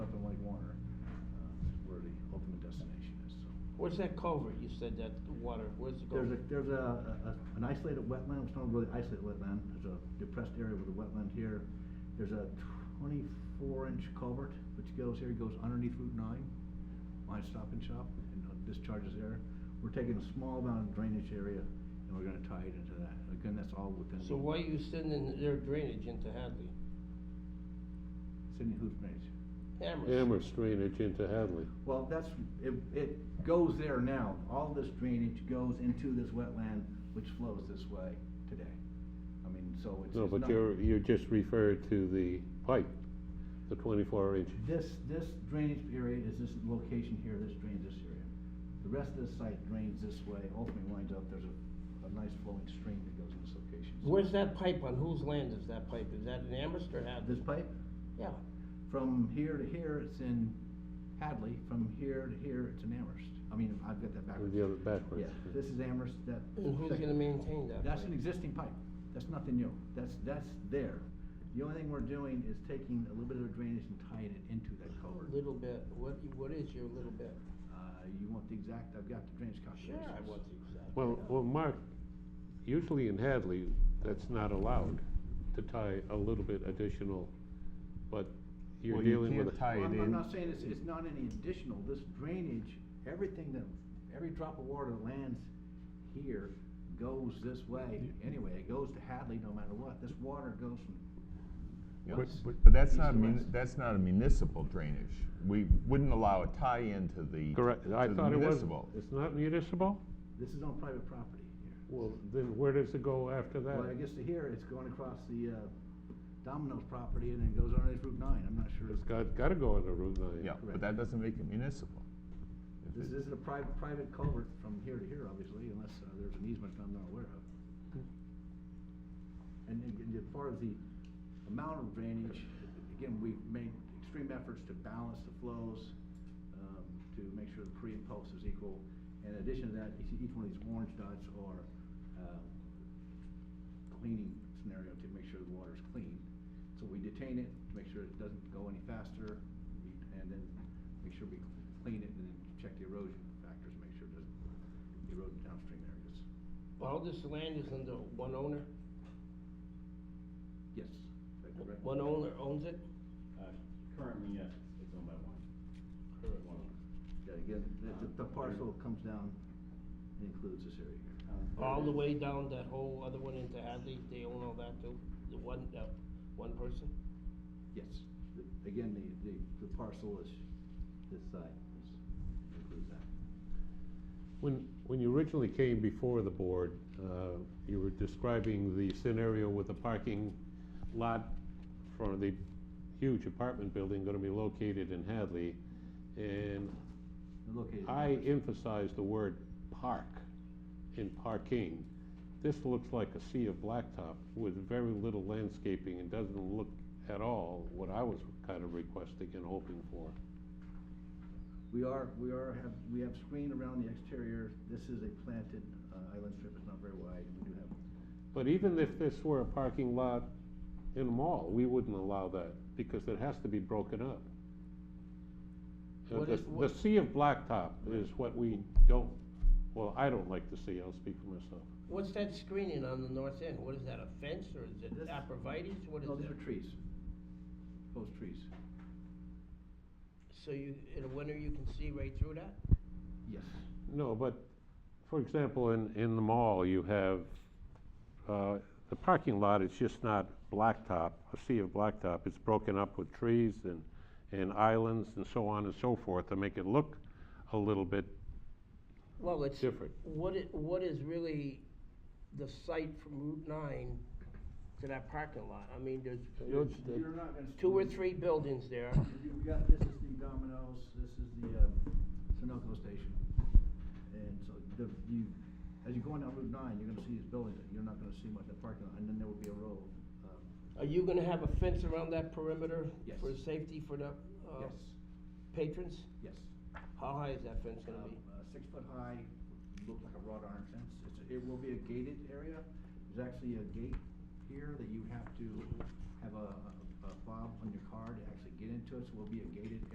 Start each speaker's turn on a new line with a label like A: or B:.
A: Where's that culvert, you said that, the water, where's the
B: There's a,
A: culvert?
B: there's a, a- a- an isolated wetland, it's not really isolated wetland, there's a depressed area with a wetland here. There's a twenty-four inch culvert which goes here, goes underneath Route nine, my stop and shop, and uh, discharges there. We're taking a small amount of drainage area and we're gonna tie it into that. Again, that's all within.
A: So
B: the-
A: why are you sending their drainage into Hadley?
B: Sydney Hoops drainage.
A: Amherst?
C: Amherst drainage into Hadley.
B: Well, that's, it, it goes there now. All this drainage goes into this wetland which flows this way today. I mean, so it's.
C: No,
B: it's
C: but
B: not-
C: you're, you just referred to the pipe, the twenty-four inch.
B: This, this drainage area is this location here, this drains this area. The rest of the site drains this way, ultimately winds up, there's a, a nice flowing stream that goes in this location. So
A: Where's that pipe, on whose land is that pipe, is that in Amherst or Hadley?
B: This pipe,
A: Yeah,
B: from here to here, it's in Hadley, from here to here, it's in Amherst. I mean, I've got that backwards.
C: The other backwards.
B: Yeah, this is Amherst, that.
A: and who's gonna maintain that pipe?
B: That's an existing pipe, that's nothing new, that's, that's there. The only thing we're doing is taking a little bit of drainage and tying it into that culvert.
A: Little bit, what, what is your little bit?
B: Uh, you want the exact, I've got the drainage
A: Sure,
B: calculations.
A: I want the exact.
C: Well, well, Mark, usually in Hadley, that's not allowed to tie a little bit additional, but you're
D: Well, you
C: dealing with. a-
D: can't tie
B: Well,
D: it
B: I'm-
D: in.
B: I'm not saying it's, it's not any additional, this drainage, everything that, every drop of water that lands here goes this way anyway, it goes to Hadley no matter what, this water goes from.
D: But,
B: west,
D: but- but that's
B: east
D: not,
B: to
D: mun-
B: west.
D: that's not a municipal drainage. We wouldn't allow a tie-in to the.
C: Correct, I
D: to the
C: thought it was,
D: municipal.
C: it's not municipal?
B: This is on private property here.
C: Well, then where does it go after that?
B: Well, I guess to here, it's going across the, uh, Domino's property and then goes underneath Route nine, I'm not sure.
C: It's got, gotta go on the Route nine.
D: Yeah,
B: Correct.
D: but that doesn't make it municipal. If
B: This
D: it-
B: isn't a private, private culvert from here to here, obviously, unless uh, there's an easement that I'm not aware of. And, and and as far as the amount of drainage, again, we've made extreme efforts to balance the flows, um, to make sure the pre and post is equal. In addition to that, each, each one of these orange dots are, um, cleaning scenario to make sure the water's clean. So we detain it, to make sure it doesn't go any faster, we- and then make sure we clean it and then check the erosion factors, make sure it doesn't erode in downstream areas.
A: All this land is under one owner,
B: Yes. is that correct?
A: one owner owns it?
E: Uh, Currently, yes, it's owned by one. One owner.
B: Yeah, again, the, the- the parcel comes down and includes this area here.
E: Um,
A: All the
E: there
A: way
E: is-
A: down that whole other one into Hadley, they own all that too, the one, that, one person?
B: Yes, The- again, the, the, the parcel is, this side is, includes that.
C: When, when you originally came before the board, uh, you were describing the scenario with the parking lot for the huge apartment building gonna be located in Hadley, and
B: They're Located. in
C: I
B: Amherst.
C: emphasized the word park in parking. This looks like a sea of blacktop with very little landscaping and doesn't look at all what I was kind of requesting and hoping for.
B: We are, we are, have, we have screen around the exterior, this is a planted, uh, island strip, it's not very wide, and we do have,
C: But even if this were a parking lot in a mall, we wouldn't allow that, because it has to be broken up. Uh,
A: What
C: The,
A: if- what-
C: the sea of blacktop is what we don't, well, I don't like to see, I'll speak for myself.
A: What's that screening on the north end, what is that, a fence, or is it
B: This-
A: aprovites, what is
B: no, these
A: it?
B: are trees, post trees,
A: So you, in the winter, you can see right through that?
B: yes.
C: No, but, for example, in, in the mall, you have, uh, the parking lot is just not blacktop, a sea of blacktop, it's broken up with trees and, and islands and so on and so forth to make it look a little bit
A: Well, it's.
C: Different.
A: What it, what is really the site from Route nine to that parking lot, I mean, there's,
C: You're-
A: there's
C: You're
B: not gonna.
A: two or three buildings there,
B: You've got, this is the Domino's, this is the, um, Sunoco station. And so the, you, as you're going down Route nine, you're gonna see these buildings, you're not gonna see much of the parking lot, and then there will be a road, um,
A: are you gonna have a fence around that perimeter?
B: Yes.
A: For safety for the, uh,
B: yes,
A: patrons?
B: yes.
A: How high is that fence gonna
B: Um,
A: be?
B: uh, six foot high, look like a wrought iron fence, it's, it will be a gated area, there's actually a gate here that you have to have a, a a fob on your car to actually get into it, so it will be a gated